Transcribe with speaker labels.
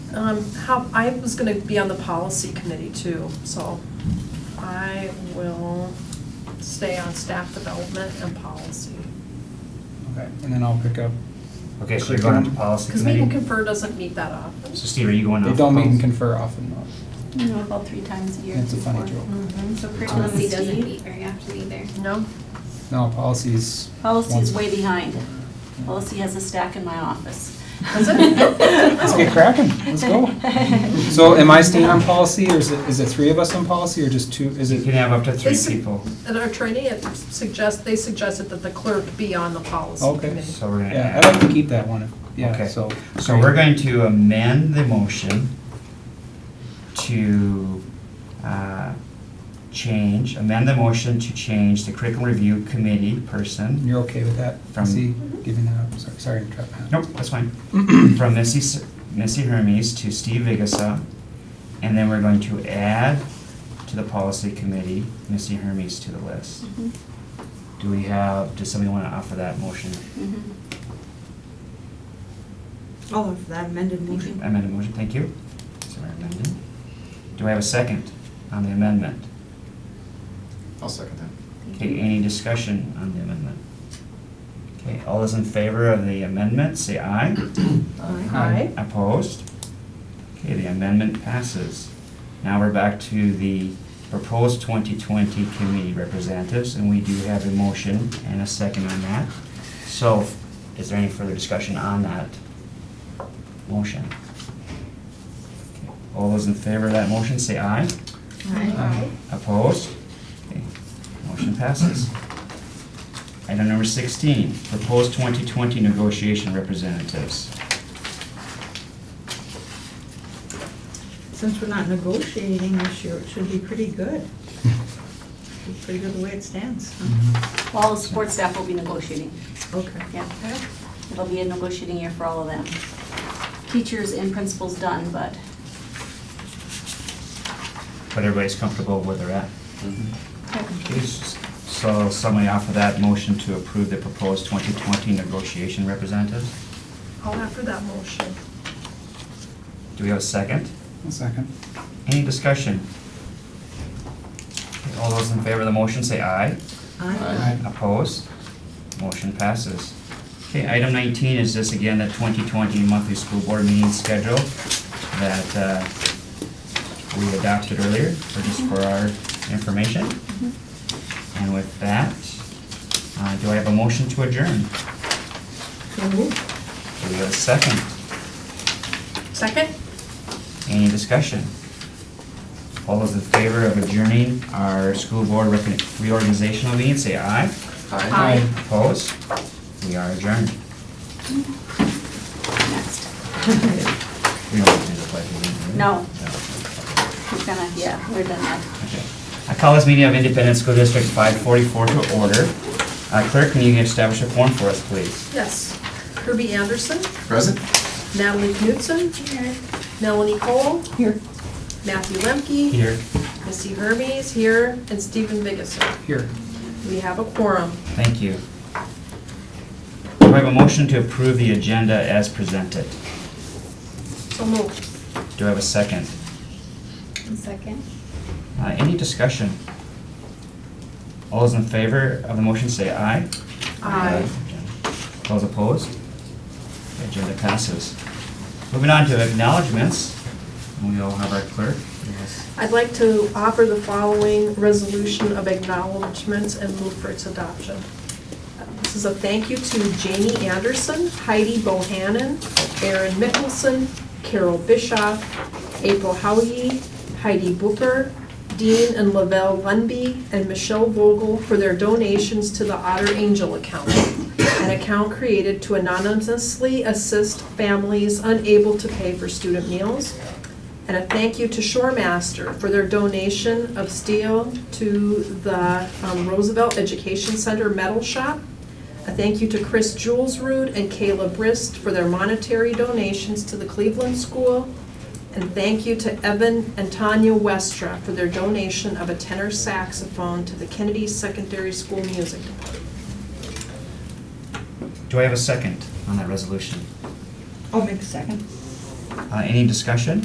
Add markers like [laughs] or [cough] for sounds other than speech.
Speaker 1: Um, how, I was gonna be on the policy committee too, so I will stay on staff development and policy.
Speaker 2: Okay, and then I'll pick up,
Speaker 3: Okay, so you're going on to
Speaker 2: Curriculum.
Speaker 3: policy
Speaker 1: Cause meet and
Speaker 3: committee?
Speaker 1: confer doesn't meet that often.
Speaker 3: So Steve, are you going
Speaker 2: they
Speaker 3: off?
Speaker 2: don't meet and
Speaker 3: policy?
Speaker 2: confer often though.
Speaker 4: You know, about three times a year.
Speaker 2: That's a funny
Speaker 4: before.
Speaker 2: joke.
Speaker 4: So curriculum
Speaker 5: Policy
Speaker 4: is
Speaker 5: doesn't
Speaker 4: deep.
Speaker 5: meet very often either.
Speaker 1: No?
Speaker 2: No, policies.
Speaker 4: Policy is
Speaker 2: once-
Speaker 4: way behind. Policy has a stack in my office. [laughs]
Speaker 1: Does it?
Speaker 2: Let's get cracking, let's go. So am I staying on policy or is it, is it three of us on policy or just two, is
Speaker 3: You can
Speaker 2: it?
Speaker 3: have up to three
Speaker 1: Is it-
Speaker 3: people,
Speaker 1: At our training, it suggest, they suggested that the clerk be on the policy
Speaker 2: Okay.
Speaker 1: committee.
Speaker 3: so we're gonna
Speaker 2: Yeah, I'd like
Speaker 3: add.
Speaker 2: to keep that one, yeah,
Speaker 3: Okay.
Speaker 2: so.
Speaker 3: So we're going to amend the motion to, uh, change, amend the motion to change the curriculum review committee person
Speaker 2: You're okay with that?
Speaker 3: From-
Speaker 2: See, giving that up, sorry, sorry, to interrupt. Matt.
Speaker 3: Nope, that's fine. [clears throat] From Missy, S- Missy Hermes to Steve Vigasa, and then we're going to add to the policy committee, Missy Hermes to the list.
Speaker 4: Mhm,
Speaker 3: Do we have, does somebody want to offer that motion?
Speaker 4: mhm.
Speaker 6: All of that amended motion.
Speaker 3: Amended motion, thank you. Sorry, amended. Do I have a second on the amendment?
Speaker 7: I'll second that.
Speaker 3: Okay, any discussion on the amendment? Okay, all those in favor of the amendment, say aye.
Speaker 1: Aye.
Speaker 3: Opposed? Okay, the amendment passes. Now we're back to the proposed 2020 committee representatives, and we do have a motion and a second on that. So is there any further discussion on that motion? Okay, All those in favor of that motion, say aye.
Speaker 2: Aye.
Speaker 3: Opposed? Okay, Motion passes. Item number 16, proposed 2020 negotiation representatives.
Speaker 6: Since we're not negotiating this year, it should be pretty good. Be Pretty good the way it stands. huh?
Speaker 2: Mhm.
Speaker 4: All the support staff will be negotiating,
Speaker 6: Okay.
Speaker 4: yeah. It'll be a negotiating year for all of them. Teachers and principals done, but
Speaker 3: but everybody's comfortable where they're at. Okay, s- So somebody offer that motion to approve the proposed 2020 negotiation representatives?
Speaker 1: I'll offer that motion.
Speaker 3: Do we have a second?
Speaker 2: One second.
Speaker 3: Any discussion? Okay, All those in favor of the motion say aye.
Speaker 6: Aye.
Speaker 2: Aye.
Speaker 3: Opposed? Motion passes. Okay, item 19 is just again the 2020 monthly school board meeting schedule that uh, we adopted earlier, for just for our information. And with that, uh, do I have a motion to adjourn?
Speaker 6: So moved.
Speaker 3: Do we have a second?
Speaker 1: Second?
Speaker 3: Any discussion? All those in favor of adjourning our school board recon- reorganizational meeting, say aye.
Speaker 1: Aye.
Speaker 3: Opposed? We are adjourned.
Speaker 4: next.
Speaker 3: We don't have to do the pledge of allegiance.
Speaker 4: No.
Speaker 3: No.
Speaker 4: We're gonna, yeah, we're done now.
Speaker 3: Okay. I call this meeting of Independent School District 544 to order. Uh, Clerk, can you establish a form for us, please?
Speaker 1: Yes. Kirby Anderson,
Speaker 7: Present?
Speaker 1: Natalie Knutson. Melanie Cole.
Speaker 6: Here.
Speaker 1: Matthew Lemke.
Speaker 3: Here.
Speaker 1: Missy Hermes here and Stephen Biggessa.
Speaker 2: Here.
Speaker 1: We have a quorum.
Speaker 3: Thank you. Do I have a motion to approve the agenda as presented?
Speaker 1: So moved.
Speaker 3: Do I have a second?
Speaker 5: Second?
Speaker 3: Uh, Any discussion? All those in favor of the motion say aye.
Speaker 1: Aye.
Speaker 3: Those opposed? The Agenda passes. Moving on to acknowledgements, we all have our clerk. Yes.
Speaker 1: I'd like to offer the following resolution of acknowledgements and move for its adoption. This is a thank you to Jamie Anderson, Heidi Bohannon, Erin Mickelson, Carol Bischoff, April Howey, Heidi Booker, Dean and Lavelle Lundby, and Michelle Vogel for their donations to the Otter Angel account, an account created to anonymously assist families unable to pay for student meals. And a thank you to Shoremaster for their donation of steel to the um, Roosevelt Education Center Metal Shop. A thank you to Chris Julesrud and Kayla Brist for their monetary donations to the Cleveland School. And thank you to Evan and Tanya Westra for their donation of a tenor saxophone to the Kennedy Secondary School Music Department.
Speaker 3: Do I have a second on that resolution?
Speaker 6: I'll make a second.
Speaker 3: Uh, Any discussion?